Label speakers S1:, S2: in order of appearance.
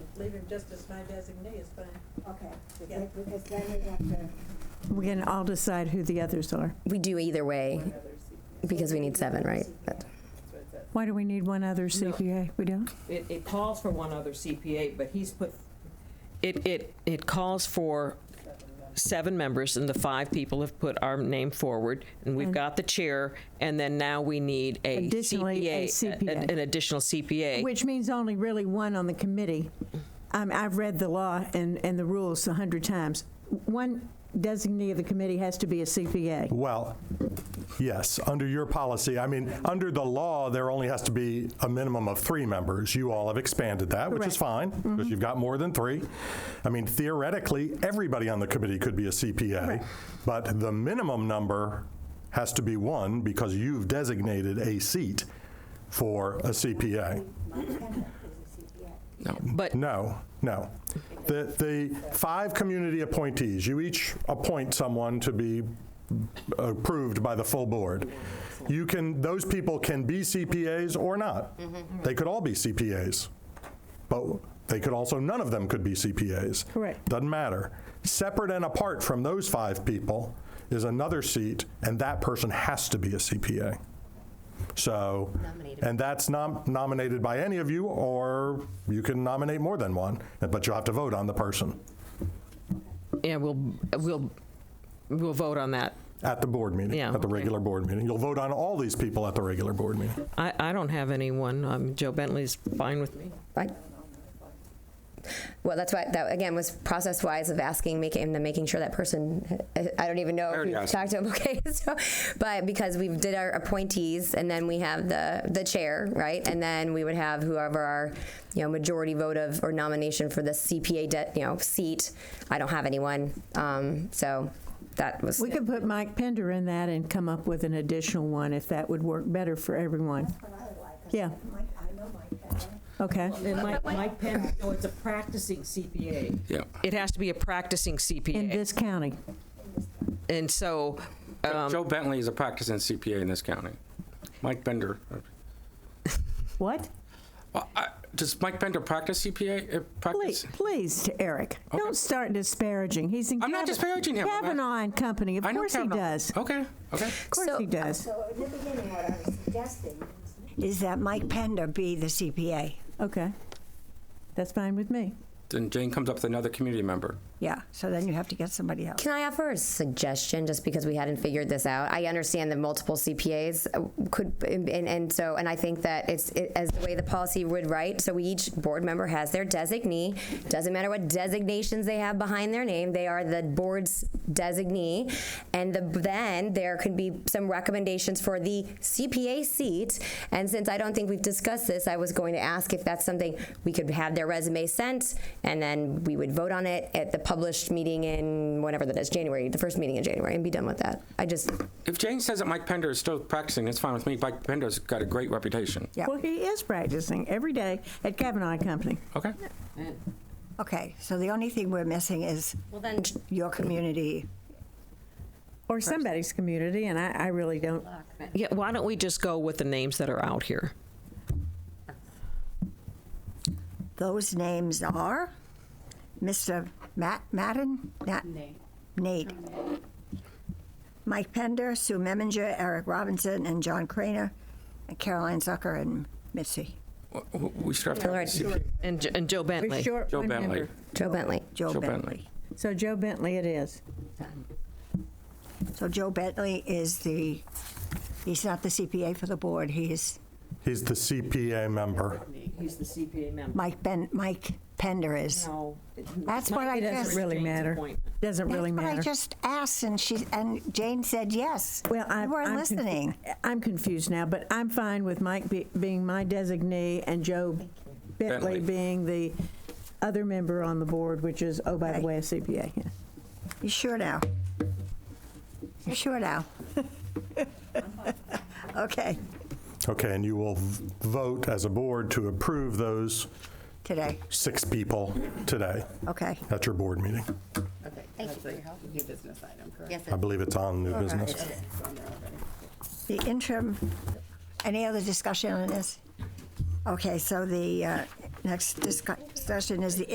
S1: leave him just as my designee is fine.
S2: Okay, so
S1: Yeah.
S2: that- because then we have to.
S3: We can all decide who the others are.
S4: We do either way because we need seven, right? That-
S3: Why do we need one other CPA? We don't?
S5: It, it calls for one other CPA, but he's put, it, it, it calls for seven members, and the five people have put our name forward, and we've got the chair, and then now we need a
S3: Additionally, a
S5: CPA, a-
S3: CPA.
S5: an additional CPA.
S3: Which means only really one on the committee. Um, I've read the law and, and the rules a hundred times. One designee of the committee has to be a CPA.
S6: Well, yes, under your policy, I mean, under the law, there only has to be a minimum of three members. You all have expanded that, which is fine, because you've got more than three. I mean, theoretically, everybody on the committee could be a CPA, but the minimum number has to be one because you've designated a seat for a CPA.
S2: My tenant is a CPA.
S5: But
S6: No, no. The, the five community appointees, you each appoint someone to be approved by the full board. You can, those people can be CPAs or not. They could all be CPAs. But they could also, none of them could be CPAs.
S3: Correct.
S6: Doesn't matter. Separate and apart from those five people is another seat, and that person has to be a CPA. So, and that's not nominated by any of you, or you can nominate more than one, but you'll have to vote on the person
S5: Yeah, we'll, we'll, we'll vote on that.
S6: at the board meeting,
S5: Yeah,
S6: at the
S5: okay.
S6: regular board meeting. You'll vote on all these people at the regular board meeting.
S5: I, I don't have anyone. Um, Joe Bentley's fine with me.
S4: Fine. Well, that's why, that again was process wise of asking, making, and then making sure that person, I- I don't even know if
S7: already
S4: you
S7: asked.
S4: talked to him, okay? So, but because we did our appointees and then we have the, the chair, right? And then we would have whoever our, you know, majority vote of or nomination for the CPA, de- you know, seat. I don't have anyone. Um, so that was,
S3: We could put Mike Pender in that and come up with an additional one if that would work better for everyone.
S2: That's what I would like. 'cause
S3: Yeah.
S2: Mike, I know Mike better.
S3: Okay.
S1: And Mike, Mike Penn, oh, it's a practicing CPA.
S7: Yeah.
S5: It has to be a practicing
S3: In
S5: CPA.
S3: this county.
S5: And so,
S3: Um,
S7: Joe Bentley is a practicing CPA in this county. Mike Bender.
S3: What?
S7: Well, I- Does Mike Bender practice CPA? Uh,
S3: Please,
S7: Practice?
S3: please, Eric, don't start disparaging. He's in.
S7: I'm not
S3: Kavan-
S7: disparaging him. I'm not-
S3: Kavanaugh and company. Of
S7: I know
S3: course he
S7: Kavanaugh.
S3: does. Of
S7: Okay, okay.
S3: course
S4: So-
S3: he does.
S2: So in the beginning, what I was suggesting
S8: is that Mike Pender be the CPA.
S3: Okay. That's fine with me.
S7: Then Jane comes up with another community member.
S8: Yeah, so then you have to get somebody else.
S4: Can I offer a suggestion just because we hadn't figured this out? I understand that multiple CPAs uh, could, and, and so, and I think that it's it, as the way the policy would write. So we each board member has their designee. Doesn't matter what designations they have behind their name, they are the board's designee. And the, then there could be some recommendations for the CPA seat. And since I don't think we've discussed this, I was going to ask if that's something we could have their resume sent and then we would vote on it at the published meeting in whenever that is, January, the first meeting in January, and be done with that. I just,
S7: If Jane says that Mike Pender is still practicing, it's fine with me. Mike Pender's got a great reputation.
S8: Yeah.
S3: Well, he is practicing every day at Kavanaugh and Company.
S7: Okay?
S8: Okay, so the only thing we're missing is
S4: well then,
S8: your community.
S3: Or somebody's community, and I, I really don't.
S5: yeah, why don't we just go with the names that are out here?
S8: Those names are Mr. Matt Madden? Nat- Nate. Mike Pender, Sue Meminger, Eric Robinson, and John Craner, and Caroline Zucker and Mitzi.
S7: W- w- We should have to have a CPA.
S5: And, Jo- and Joe Bentley.
S3: short
S7: Joe
S3: one
S7: Bentley.
S3: member.
S4: Joe Bentley.
S8: Joe
S7: Joe
S8: Bentley.
S7: Bentley.
S3: So Joe Bentley it is.
S8: So Joe Bentley is the, he's not the CPA for the board, he's
S6: He's the CPA member.
S5: He's the CPA member.
S8: Mike Ben, Mike Pender is.
S5: No. it-
S8: That's
S5: Mike
S8: what I
S5: Pender
S8: just-
S5: is
S3: Doesn't really
S5: Jane's
S3: matter.
S5: appointment.
S3: Doesn't really
S8: That's what I
S3: matter.
S8: just asked, and she, and Jane said yes.
S3: Well, I,
S8: You weren't
S3: I'm confu-
S8: listening.
S3: I'm confused now, but I'm fine with Mike be, being my designee and Joe Bentley,
S7: Bentley.
S3: being the other member on the board, which is, oh, by the
S8: Okay.
S3: way, a CPA. Yeah.
S8: You sure now? You sure now? Okay,
S6: Okay, and you will v- vote as a board to approve those
S8: today,
S6: six people today
S8: okay.
S6: at your board meeting.
S9: Okay, that's a new business item, correct?
S6: I believe it's on new business.
S8: The interim, any other discussion on this? Okay, so the uh, next discuss- discussion is the